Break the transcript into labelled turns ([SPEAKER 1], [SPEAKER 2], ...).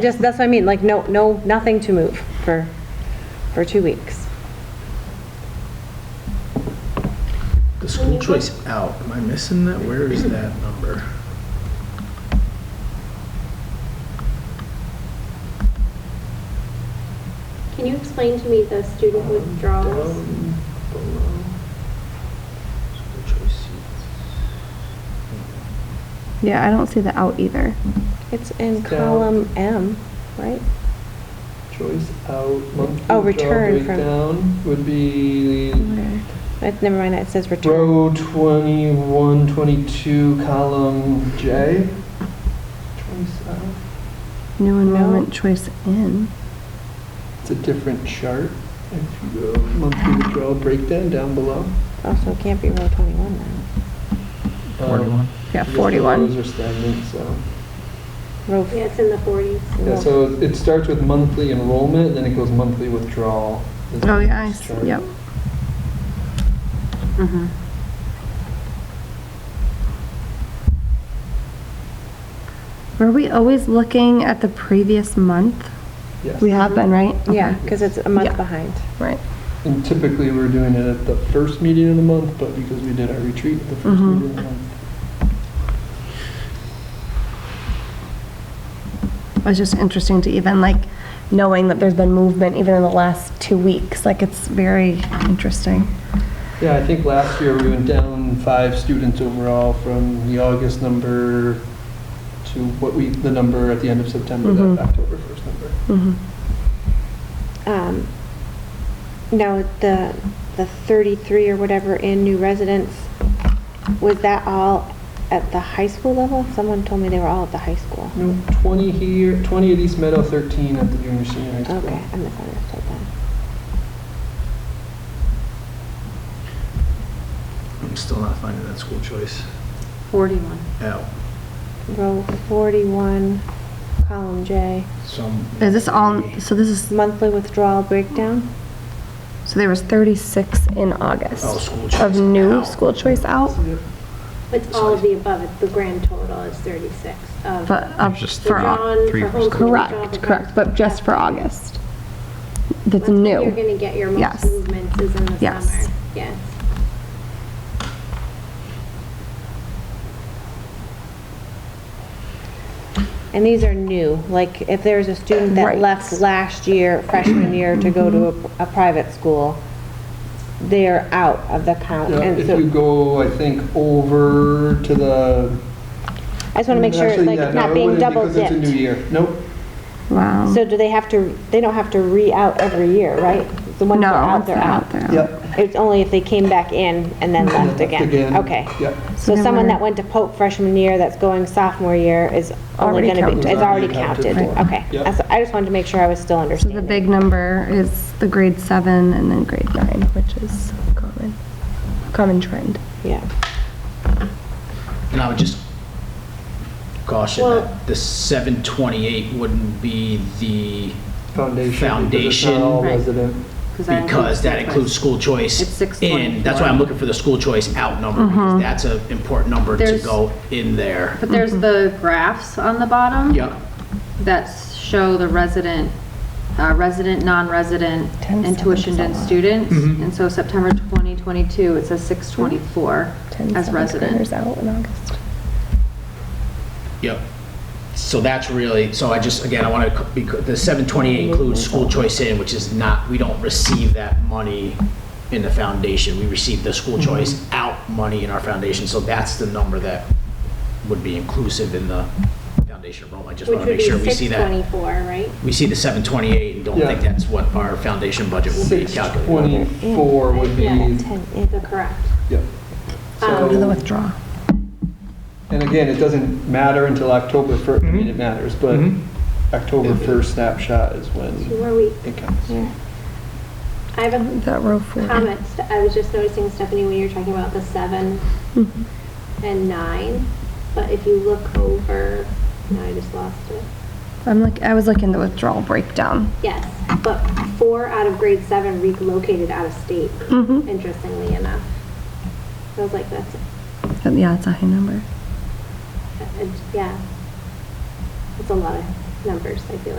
[SPEAKER 1] Just, that's what I mean, like, no, no, nothing to move for, for two weeks.
[SPEAKER 2] The school choice out, am I missing that? Where is that number?
[SPEAKER 3] Can you explain to me the student withdrawals?
[SPEAKER 2] Down below. School choice seats.
[SPEAKER 4] Yeah, I don't see the out either.
[SPEAKER 1] It's in
[SPEAKER 2] It's down.
[SPEAKER 1] column M, right?
[SPEAKER 5] Choice out, monthly
[SPEAKER 1] Oh,
[SPEAKER 5] job
[SPEAKER 1] return from-
[SPEAKER 5] breakdown would be
[SPEAKER 4] Where?
[SPEAKER 1] Uh, Never mind, it says return.
[SPEAKER 5] row 21, 22, column J. Choice out,
[SPEAKER 4] New enrollment choice in.
[SPEAKER 5] it's a different chart. If you go monthly withdrawal breakdown down below.
[SPEAKER 1] Also, Oh, it can't be row 21 now.
[SPEAKER 5] Um,
[SPEAKER 2] Forty-one.
[SPEAKER 4] Yeah,
[SPEAKER 5] because the rows
[SPEAKER 4] 41.
[SPEAKER 5] are stagnant, so.
[SPEAKER 1] Row,
[SPEAKER 3] Yeah, it's in the 40s.
[SPEAKER 5] Yeah,
[SPEAKER 1] row-
[SPEAKER 5] so it starts with monthly enrollment, then it goes monthly withdrawal. is the
[SPEAKER 4] Oh, yeah, I
[SPEAKER 5] next
[SPEAKER 4] see,
[SPEAKER 5] chart.
[SPEAKER 4] yep. Mm-hmm. Were we always looking at the previous month?
[SPEAKER 5] Yes.
[SPEAKER 4] We have been, right?
[SPEAKER 1] yeah,
[SPEAKER 4] Okay.
[SPEAKER 1] because it's a month
[SPEAKER 4] Yeah.
[SPEAKER 1] behind.
[SPEAKER 4] Right.
[SPEAKER 5] And typically, we're doing it at the first meeting of the month, but because we did our retreat at the first
[SPEAKER 4] Mhm.
[SPEAKER 5] meeting of the month.
[SPEAKER 4] It was just interesting to even like knowing that there's been movement even in the last two weeks. Like it's very interesting.
[SPEAKER 5] Yeah, I think last year we went down five students overall from the August number to what we, the number at the end of September,
[SPEAKER 4] Mhm.
[SPEAKER 5] that October 1st number.
[SPEAKER 4] Mm-hmm.
[SPEAKER 1] Um, Now, the, the 33 or whatever in new residents, was that all at the high school level? Someone told me they were all at the high school.
[SPEAKER 5] No, 20 here, 20 at East Meadow, 13 at the junior senior high school.
[SPEAKER 1] Okay, I misunderstood that.
[SPEAKER 2] I'm still not finding that school choice
[SPEAKER 6] 41.
[SPEAKER 2] out.
[SPEAKER 1] Row 41, column J,
[SPEAKER 2] Some.
[SPEAKER 4] Is this all, so this is,
[SPEAKER 1] monthly withdrawal breakdown?
[SPEAKER 4] so there was 36 in
[SPEAKER 2] Oh,
[SPEAKER 4] August
[SPEAKER 2] school choice.
[SPEAKER 4] of new
[SPEAKER 2] out.
[SPEAKER 4] school choice out,
[SPEAKER 3] It's all of the above, it's the grand total is 36 of
[SPEAKER 4] but of,
[SPEAKER 7] Just
[SPEAKER 4] for,
[SPEAKER 7] three.
[SPEAKER 4] Au-
[SPEAKER 3] withdrawn,
[SPEAKER 7] three
[SPEAKER 3] for
[SPEAKER 7] for
[SPEAKER 3] homeschool.
[SPEAKER 4] correct, correct, but just for August. That's
[SPEAKER 3] You're
[SPEAKER 4] new.
[SPEAKER 3] going to get your
[SPEAKER 4] Yes.
[SPEAKER 3] most movements is in the
[SPEAKER 4] Yes.
[SPEAKER 3] summer. Yes.
[SPEAKER 1] And these are new, like if there's a student that
[SPEAKER 4] Right.
[SPEAKER 1] left last year, freshman year, to go to a, a private school, they're out of the count.
[SPEAKER 5] Yeah,
[SPEAKER 1] And
[SPEAKER 5] If
[SPEAKER 1] so
[SPEAKER 5] you go, I think, over to the.
[SPEAKER 1] I just want to make sure,
[SPEAKER 5] Actually,
[SPEAKER 1] like,
[SPEAKER 5] yeah,
[SPEAKER 1] it's
[SPEAKER 5] no, it
[SPEAKER 1] not being
[SPEAKER 5] wouldn't
[SPEAKER 1] double
[SPEAKER 5] Because it's a new
[SPEAKER 1] dipped.
[SPEAKER 5] year. Nope.
[SPEAKER 4] Wow.
[SPEAKER 1] So do they have to, they don't have to re-out every year, right? The ones that are
[SPEAKER 4] No,
[SPEAKER 1] out,
[SPEAKER 4] it's
[SPEAKER 1] they're out.
[SPEAKER 4] out there.
[SPEAKER 5] Yep.
[SPEAKER 1] It's only if they came back in and then left again. Okay.
[SPEAKER 5] Yep.
[SPEAKER 1] So
[SPEAKER 4] So
[SPEAKER 1] someone
[SPEAKER 4] we're-
[SPEAKER 1] that went to Pope freshman year that's going sophomore year is only
[SPEAKER 4] Already
[SPEAKER 1] going to be,
[SPEAKER 4] counted.
[SPEAKER 1] is already
[SPEAKER 5] Already counted
[SPEAKER 1] counted.
[SPEAKER 4] for.
[SPEAKER 1] Okay.
[SPEAKER 5] Yep.
[SPEAKER 1] That's- I just wanted to make sure I was still
[SPEAKER 4] So the
[SPEAKER 1] understanding.
[SPEAKER 4] big number is the grade seven and then grade nine, which is common, common trend.
[SPEAKER 1] Yeah.
[SPEAKER 7] And I would just caution
[SPEAKER 3] Well-
[SPEAKER 7] that the 728 wouldn't be the,
[SPEAKER 5] Foundation. because it's not
[SPEAKER 7] Foundation.
[SPEAKER 5] all
[SPEAKER 6] Right.
[SPEAKER 5] resident.
[SPEAKER 7] because that includes school choice.
[SPEAKER 6] It's
[SPEAKER 7] In, that's why
[SPEAKER 6] 624.
[SPEAKER 7] I'm looking for the school choice out number,
[SPEAKER 4] Mm-hmm.
[SPEAKER 7] because that's an important number to
[SPEAKER 6] There's-
[SPEAKER 7] go in there.
[SPEAKER 6] But there's the graphs on the bottom.
[SPEAKER 7] Yeah,
[SPEAKER 6] That show the resident, uh, resident, non-resident,
[SPEAKER 4] Ten
[SPEAKER 6] and
[SPEAKER 4] seconds is
[SPEAKER 6] tuitioned
[SPEAKER 4] a
[SPEAKER 6] in
[SPEAKER 4] lot.
[SPEAKER 6] students.
[SPEAKER 7] Mm-hmm.
[SPEAKER 6] And so September 2022, it says 624
[SPEAKER 4] Ten
[SPEAKER 6] as
[SPEAKER 4] seventh
[SPEAKER 6] resident.
[SPEAKER 4] graders out in August.
[SPEAKER 7] yep. So that's really, so I just, again, I want to, the 728 includes school choice in, which is not, we don't receive that money in the foundation. We receive the school
[SPEAKER 3] Mm-hmm.
[SPEAKER 7] choice out money in our foundation, so that's the number that would be inclusive in the foundation enrollment. I just
[SPEAKER 3] Which
[SPEAKER 7] want to
[SPEAKER 3] would
[SPEAKER 7] make
[SPEAKER 3] be
[SPEAKER 7] sure we see that.
[SPEAKER 3] 624, right?
[SPEAKER 7] we see the 728 and don't
[SPEAKER 5] Yeah.
[SPEAKER 7] think that's what our foundation budget will be calculated.
[SPEAKER 5] 624 would be,
[SPEAKER 3] Yeah.
[SPEAKER 1] Ten, yeah.
[SPEAKER 3] The correct.
[SPEAKER 5] yep.
[SPEAKER 3] Um,
[SPEAKER 4] The
[SPEAKER 5] So,
[SPEAKER 4] withdrawal.
[SPEAKER 5] and again, it doesn't matter until October 1st, I
[SPEAKER 7] Mm-hmm.
[SPEAKER 5] mean, it matters, but
[SPEAKER 2] Mhm.
[SPEAKER 5] October 1st snapshot is
[SPEAKER 3] So
[SPEAKER 5] when
[SPEAKER 3] were we,
[SPEAKER 5] it counts.
[SPEAKER 3] I have a
[SPEAKER 4] That row four.
[SPEAKER 3] comment. Ste- I was just noticing, Stephanie, when you were talking about the seven
[SPEAKER 4] Mm-hmm.
[SPEAKER 3] and nine, but if you look over, no, I just lost it.
[SPEAKER 4] I'm like, I was looking at the withdrawal breakdown.
[SPEAKER 3] Yes, but four out of grade seven relocated out of state,
[SPEAKER 4] Mhm.
[SPEAKER 3] interestingly enough. I was like, that's,
[SPEAKER 4] But Yeah, it's a high number.
[SPEAKER 3] uh, yeah. That's a lot of numbers, I feel like.